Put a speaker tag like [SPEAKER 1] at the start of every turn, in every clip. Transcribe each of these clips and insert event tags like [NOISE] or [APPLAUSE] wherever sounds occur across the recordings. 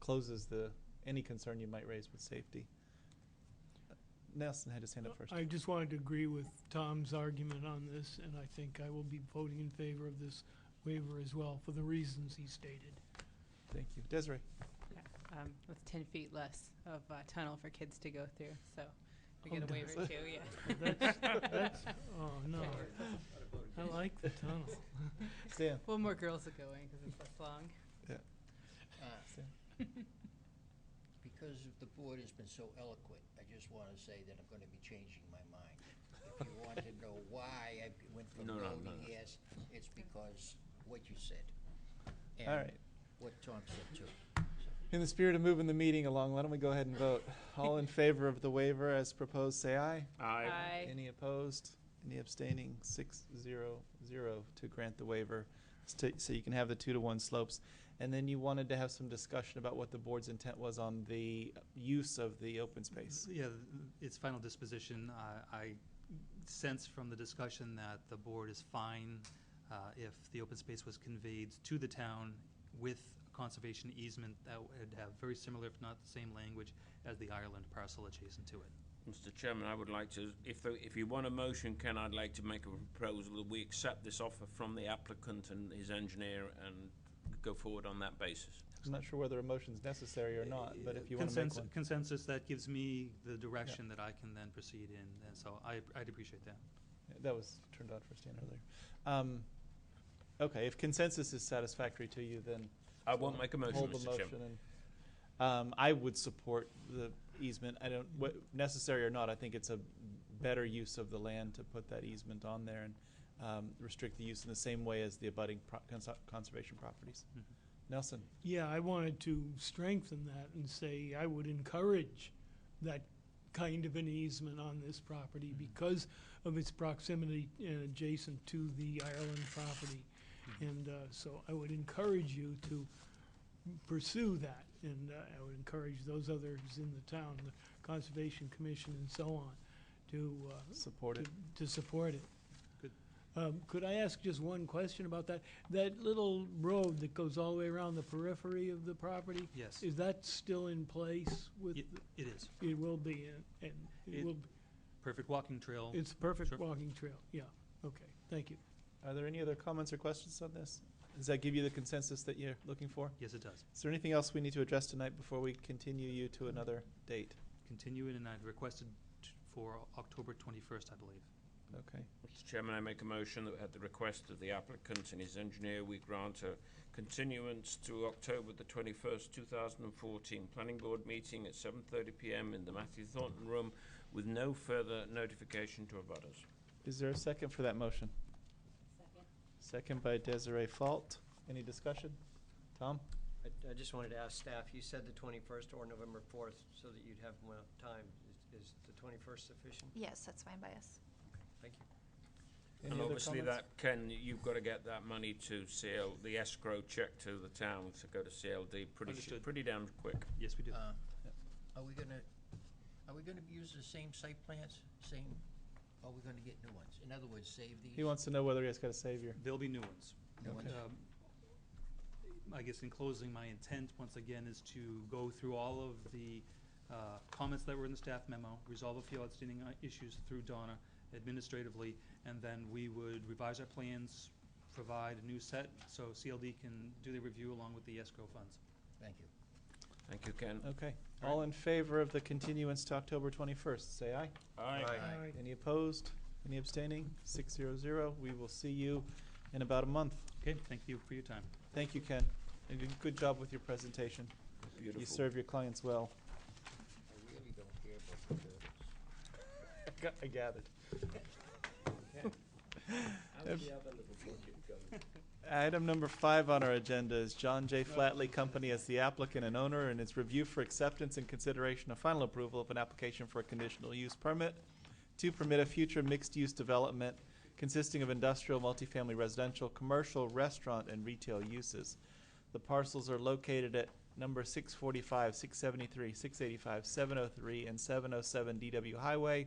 [SPEAKER 1] closes the, any concern you might raise with safety. Nelson had his hand up first.
[SPEAKER 2] Oh, I just wanted to agree with Tom's argument on this, and I think I will be voting in favor of this waiver as well, for the reasons he stated.
[SPEAKER 1] Thank you. Desiree?
[SPEAKER 3] Um, with ten feet less of uh, tunnel for kids to go through, so we
[SPEAKER 2] Oh,
[SPEAKER 3] get a
[SPEAKER 2] does
[SPEAKER 3] waiver too, yeah.
[SPEAKER 2] That's, that's, oh, no, I like the tunnel.
[SPEAKER 1] Stan?
[SPEAKER 3] Well, more girls will go in because it's less long.
[SPEAKER 4] Uh,
[SPEAKER 1] Stan?
[SPEAKER 4] Because the board has been so eloquent, I just want to say that I'm going to be changing my mind. If you want to know why I went from
[SPEAKER 5] No,
[SPEAKER 4] no
[SPEAKER 5] no,
[SPEAKER 4] to
[SPEAKER 5] no, no.
[SPEAKER 4] yes, it's because what you said.
[SPEAKER 1] All
[SPEAKER 4] and
[SPEAKER 1] right.
[SPEAKER 4] What Tom said too.
[SPEAKER 1] In the spirit of moving the meeting along, why don't we go ahead and vote? All in favor of the waiver as proposed, say aye.
[SPEAKER 3] Aye.
[SPEAKER 1] Any opposed? Any abstaining? Six, zero, zero to grant the waiver, sta- so you can have the two to one slopes. And then you wanted to have some discussion about what the board's intent was on the use of the open space.
[SPEAKER 6] Yeah, its final disposition, I- I sense from the discussion that the board is fine uh, if the open space was conveyed to the town with conservation easement that would have very similar, if not the same language, as the Ireland parcel adjacent to it.
[SPEAKER 5] Mr. Chairman, I would like to, if, the- if you want a motion, Ken, I'd like to make a proposal that we accept this offer from the applicant and his engineer and go forward on that basis.
[SPEAKER 1] I'm not sure whether a motion's necessary or not, but if you want to make
[SPEAKER 6] Consensus-
[SPEAKER 1] one.
[SPEAKER 6] Consensus, that gives me the direction that I can then proceed in, and so I, I'd appreciate that.
[SPEAKER 1] That was turned on for Stan earlier. Um, Okay, if consensus is satisfactory to you, then
[SPEAKER 5] I won't make a motion,
[SPEAKER 1] hold the
[SPEAKER 5] Mr. Chairman.
[SPEAKER 1] motion. and, Um, I would support the easement. I don't, wh- necessary or not, I think it's a better use of the land to put that easement on there and, um, restrict the use in the same way as the abutting pro- cons- conservation properties.
[SPEAKER 6] Mhm.
[SPEAKER 5] Mm-hmm.
[SPEAKER 1] Nelson,
[SPEAKER 2] Yeah, I wanted to strengthen that and say I would encourage that kind of an easement on this property because of its proximity and adjacent to the Ireland property. And uh, so I would encourage you to pursue that, and uh, I would encourage those others in the town, the Conservation Commission and so on, to uh,
[SPEAKER 1] support it.
[SPEAKER 2] to- To support it.
[SPEAKER 6] Good.
[SPEAKER 2] Um, Could I ask just one question about that? That little road that goes all the way around the periphery of the property,
[SPEAKER 6] Yes,
[SPEAKER 2] is that still in place with,
[SPEAKER 6] Y- it is.
[SPEAKER 2] it will be, in- and it
[SPEAKER 6] It-
[SPEAKER 2] will,
[SPEAKER 6] Perfect walking trail.
[SPEAKER 2] it's a perfect
[SPEAKER 6] Sure.
[SPEAKER 2] walking trail, yeah, okay, thank you.
[SPEAKER 1] Are there any other comments or questions on this? Does that give you the consensus that you're looking for?
[SPEAKER 6] Yes, it does.
[SPEAKER 1] Is there anything else we need to address tonight before we continue you to another date?
[SPEAKER 6] Continue it, and I'd requested t- for October 21st, I believe.
[SPEAKER 1] Okay.
[SPEAKER 5] Mr. Chairman, I make a motion that at the request of the applicant and his engineer, we grant a continuance to October the twenty-first, two thousand and fourteen, planning board meeting at seven thirty PM in the Matthew Thornton Room with no further notification to abutters.
[SPEAKER 1] Is there a second for that motion? Second by Desiree Fault. Any discussion? Tom?
[SPEAKER 7] I, I just wanted to ask staff, you said the twenty-first or November fourth, so that you'd have more time. Is, is the twenty-first sufficient?
[SPEAKER 8] Yes, that's fine by us.
[SPEAKER 7] Thank you.
[SPEAKER 1] Any
[SPEAKER 5] and
[SPEAKER 1] other
[SPEAKER 5] obviously
[SPEAKER 1] comments?
[SPEAKER 5] that Ken, you've got to get that money to CL, the escrow check to the town to go to CLD pretty sh-
[SPEAKER 6] Understood.
[SPEAKER 5] pretty damn quick.
[SPEAKER 6] Yes, we do.
[SPEAKER 4] Uh, Are we gonna, are we gonna use the same site plans, same, are we gonna get new ones? In other words, save these?
[SPEAKER 1] He wants to know whether he has got a savior.
[SPEAKER 6] There'll be new ones.
[SPEAKER 4] New ones?
[SPEAKER 6] Um, I guess in closing, my intent, once again, is to go through all of the uh, comments that were in the staff memo, resolve a few outstanding uh, issues through Donna administratively, and then we would revise our plans, provide a new set, so CLD can do the review along with the escrow funds.
[SPEAKER 4] Thank you.
[SPEAKER 5] Thank you, Ken.
[SPEAKER 1] Okay. All in favor of the continuance to October twenty-first, say aye.
[SPEAKER 5] Aye.
[SPEAKER 4] Aye.
[SPEAKER 1] Any opposed? Any abstaining? Six zero zero. We will see you in about a month.
[SPEAKER 6] Okay, thank you for your time.
[SPEAKER 1] Thank you, Ken. And good- good job with your presentation.
[SPEAKER 5] Beautiful.
[SPEAKER 1] You serve your clients well.
[SPEAKER 4] I really don't care about the turtles.
[SPEAKER 1] [LAUGHS] I gathered.
[SPEAKER 4] [LAUGHS]
[SPEAKER 1] Um, Item number five on our agenda is John J. Flatley Company as the applicant and owner and its review for acceptance and consideration of final approval of an application for a conditional use permit to permit a future mixed-use development consisting of industrial, multifamily, residential, commercial, restaurant, and retail uses. The parcels are located at number six forty-five, six seventy-three, six eighty-five, seven oh three, and seven oh seven DW Highway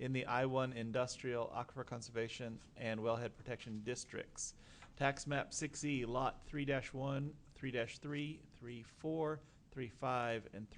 [SPEAKER 1] in the I one Industrial Aquifer Conservation and Wellhead Protection Districts. Tax map six E, lot three one, three three, three four, three five, and